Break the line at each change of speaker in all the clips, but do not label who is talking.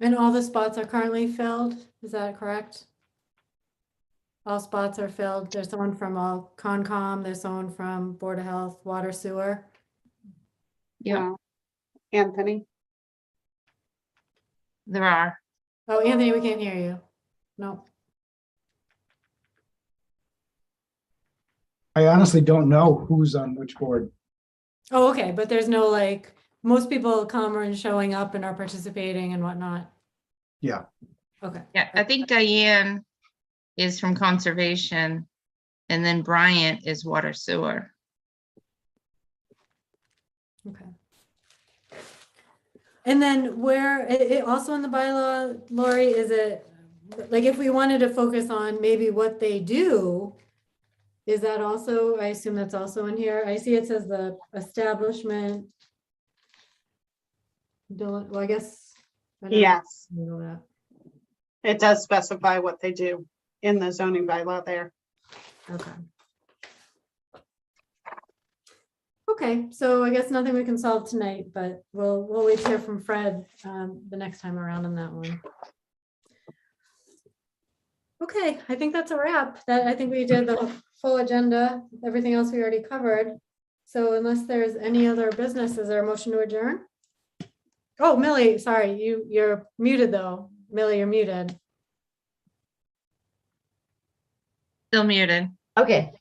And all the spots are currently filled, is that correct? All spots are filled, there's someone from all Concom, there's someone from Board of Health, Water Sewer.
Yeah,
Anthony,
there are.
Oh, Anthony, we can't hear you. No,
I honestly don't know who's on which board.
oh, okay, but there's no like, most people come and showing up and are participating and whatnot.
Yeah.
Okay,
Yeah, I think Diane is from Conservation. And then Bryant is Water Sewer.
okay. And then where, it, it also in the bylaw, Lori, is it, like, if we wanted to focus on maybe what they do, is that also, I assume that's also in here. I see it says the establishment. Don't, well, I guess. I don't
yes,
know that.
it does specify what they do in the zoning bylaw there.
Okay. Okay, so I guess nothing we can solve tonight, but we'll, we'll wait to hear from Fred um, the next time around on that one. Okay, I think that's a wrap. That, I think we did the full agenda, everything else we already covered. So unless there's any other business, is there a motion to adjourn? Oh, Millie, sorry, you, you're muted though. Millie, you're muted.
Still muted.
Okay,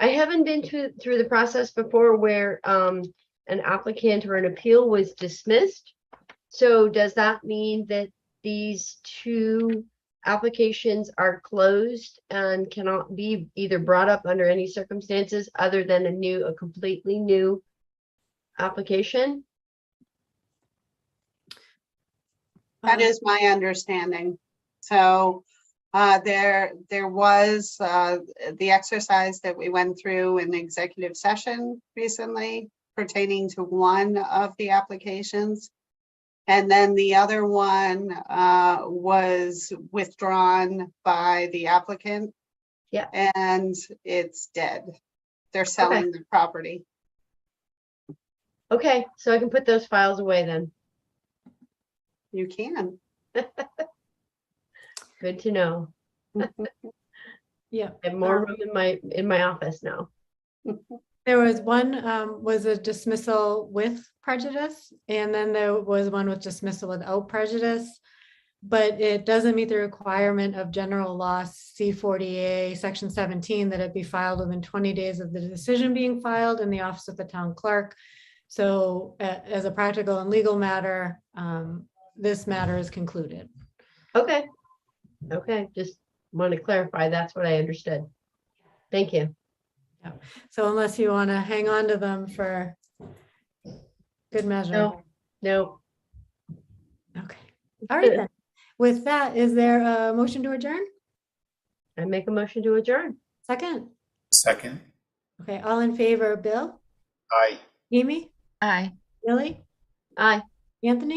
I haven't been to, through the process before where, um, an applicant or an appeal was dismissed. So does that mean that these two applications are closed and cannot be either brought up under any circumstances other than a new, a completely new application?
That
Uh,
is my understanding. So uh, there, there was uh, the exercise that we went through in executive session recently pertaining to one of the applications. And then the other one uh, was withdrawn by the applicant.
Yeah.
And it's dead. They're selling the property.
Okay, so I can put those files away then.
You can.
Good to know.
Yeah.
I have more
Um,
room in my, in my office now.
There was one, um, was a dismissal with prejudice, and then there was one with dismissal without prejudice. But it doesn't meet the requirement of general law C forty A, section seventeen, that it be filed within twenty days of the decision being filed in the office of the town clerk. So a- as a practical and legal matter, um, this matter is concluded.
Okay. Okay, just want to clarify, that's what I understood. Thank you.
So unless you want to hang on to them for good measure.
No, no,
Okay, all right then. With that, is there a motion to adjourn?
I make a motion to adjourn.
Second?
Second,
Okay, all in favor, Bill,
aye.
Amy,
Aye.
Billy,
Aye.
Anthony?